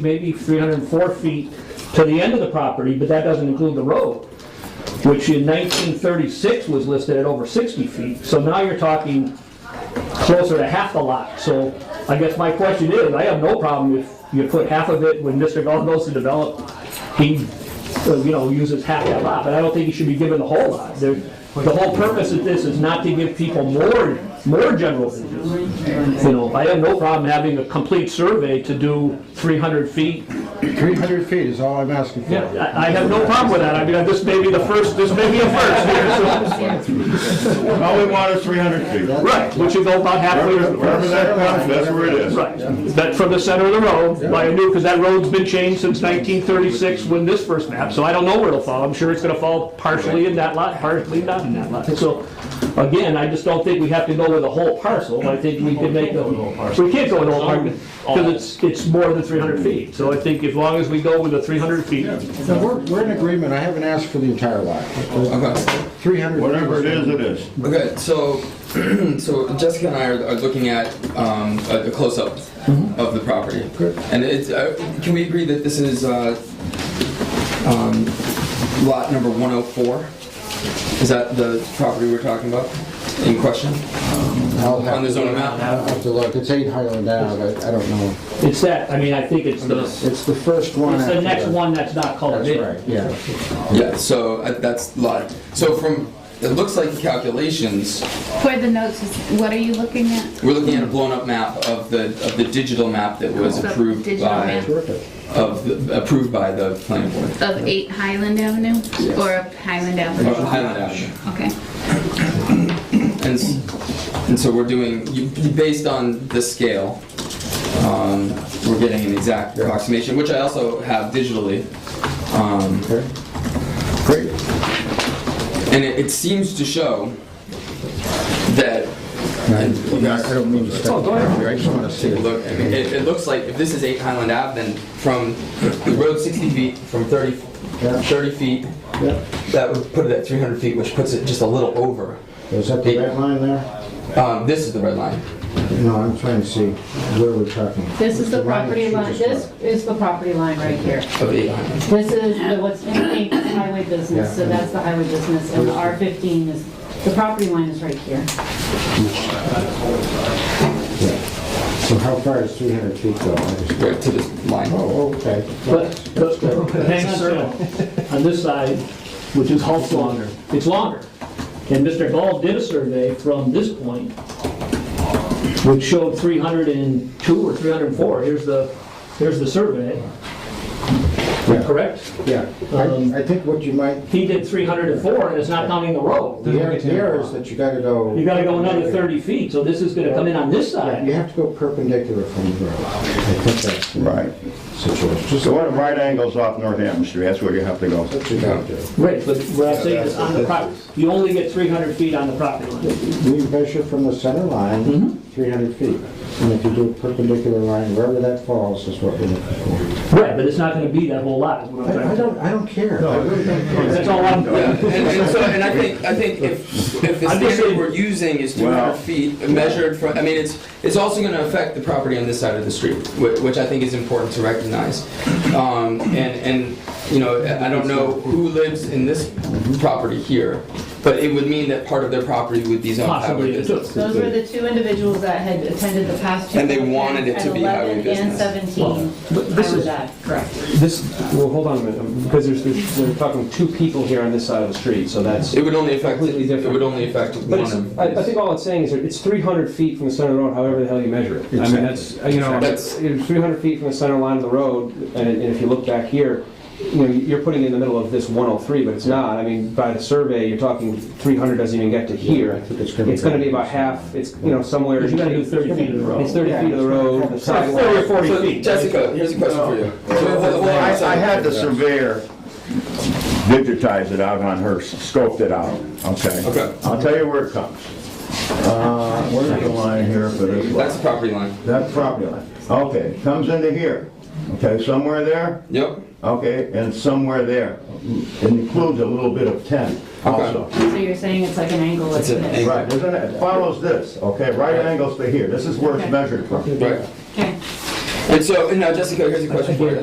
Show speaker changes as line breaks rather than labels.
maybe 304 feet to the end of the property, but that doesn't include the road, which in 1936 was listed at over 60 feet. So now you're talking closer to half the lot. So I guess my question is, I have no problem if you put half of it when Mr. Gall goes to develop, he, uh, you know, uses half that lot, but I don't think he should be given the whole lot. There- The whole purpose of this is not to give people more, more general business. You know, I have no problem having a complete survey to do 300 feet.
300 feet is all I'm asking for.
I I have no problem with that. I mean, this may be the first, this may be a first here,
All we want is 300 feet.
so. Right, which would go about halfway.
Wherever wherever that comes, that's where it is.
Right, that from the center of the road, by a new, because that road's been changed since 1936 when this first map, so I don't know where it'll fall. I'm sure it's gonna fall partially in that lot, partially not in that lot. So, again, I just don't think we have to go with a whole parcel, I think we can make a, we can't go with a whole parcel, because it's, it's more than 300 feet. So I think as long as we go with the 300 feet,
No, we're, we're in agreement, I haven't asked for the entire lot.
Okay,
300.
Whatever it is, it is.
okay, so, so Jessica and I are, are looking at, um, a, a close-up of the property. And it's, uh, can we agree that this is, uh, um, lot number one oh four? Is that the property we're talking about in question?
I'll have
On the
to-
zoning map?
I'll have to look, it's 8 Highland Ave, I I don't know.
it's that, I mean, I think it's the, it's
It's the first one.
the
after
next one that's not colored
That's
in.
right, yeah.
Yeah, so, uh, that's lot, so from, it looks like the calculations,
For the notes, what are you looking at?
we're looking at a blown-up map of the, of the digital map that was
The
approved
digital
by,
map.
Terrific.
of, the- approved by the planning board.
Of 8 Highland Avenue or of Highland
Or
Avenue?
Highland Avenue.
Okay.
And, s- and so we're doing, you- you- based on the scale, um, we're getting an exact approximation, which I also have digitally. Um,
Okay. Great.
And it, it seems to show that,
And I I don't mean to
Oh,
step on you, I just want to see
take a
it.
look, I mean, it, it looks like if this is 8 Highland Ave, then from the road 60 feet, from 30,
Yeah.
30 feet,
Yeah.
that would put it at 300 feet, which puts it just a little over.
Is that the red line there?
Um, This is the red line.
No, I'm trying to see where we're talking.
This is the
line
property
that you
line,
just
this
marked.
is the property line right here.
of 8 Highland.
This is the- what's in the highway business, so that's the highway business, and the R15 is, the property line is right here.
Yeah. So how far is 300 feet though? I just-
Right to this line.
Oh, okay.
But the the Bank Circle on this side, which is also longer, it's longer. And Mr. Gall did a survey from this point, which showed 302 or 304. Here's the, here's the survey,
Yeah.
correct?
Yeah,
Um,
I, I think what you might,
He did 304, and it's not counting the road.
the error the error is that you gotta go.
You gotta go another 30 feet, so this is gonna come in on this
Yeah, You
side.
have to go perpendicular from the road. I think that's the
Right.
situation. Just
So one of right angles off Northampton Street, that's where you have to go.
what you gotta do.
Right, but what I'm saying is on the property, you only get 300 feet on the property line.
We measure from the center line, 300 feet. And if you do a perpendicular line, wherever that falls is what we're looking for.
Right, but it's not gonna be that whole lot, is what I'm trying to
I I
say.
don't, I don't care. I really don't care.
That's all I'm,
Yeah, and, and so, and I think, I think if, if the
I'm just
standard
saying-
we're using is two
Wow.
hundred feet measured from, I mean, it's, it's also gonna affect the property on this side of the street, which, which I think is important to recognize. Um, and, and, you know, I I don't know who lives in this property here, but it would mean that part of their property would be zoned highway
possibly, it took.
business.
Those were the two individuals that had attended the past two.
And they wanted it to be highway business.
At 11 and 17,
but this
highway
is-
that, correct.
This, well, hold on a minute, because there's, there's, we're talking two people here on this side of the street, so that's.
It would only affect,
Completely
it
different.
would only affect one
But it's,
of
I, I
these.
think all it's saying is that it's three hundred feet from the center of the road, however the hell you measure it. I mean, that's, uh, you know,
That's-
that's, three hundred feet from the center line of the road, and, and if you look back here, you know, you're putting it in the middle of this one oh three, but it's not. I mean, by the survey, you're talking three hundred doesn't even get to here.
I think it's gonna be-
It's gonna be about half, it's, you know, somewhere.
Because you gotta do 30 feet of the road.
It's thirty feet of the road, the sidewalk.
30 or 40
So,
feet.
Jessica, here's a question for you. So, hold- hold on a
I, I
second.
had the surveyor digitize it out on her, scoped it out, okay?
Okay.
I'll tell you where it comes. Uh, where's the line here for this? lot?
That's the property line.
That's property line. Okay, comes into here. Okay, somewhere there,
Yep,
okay, and somewhere there. It includes a little bit of 10 also.
So you're saying it's like an angle,
It's
it's
an
this.
Right, isn't it? It follows this, okay, right angles to here. This is where it's measured from.
right.
Okay.
And so, and now Jessica, here's a question for you.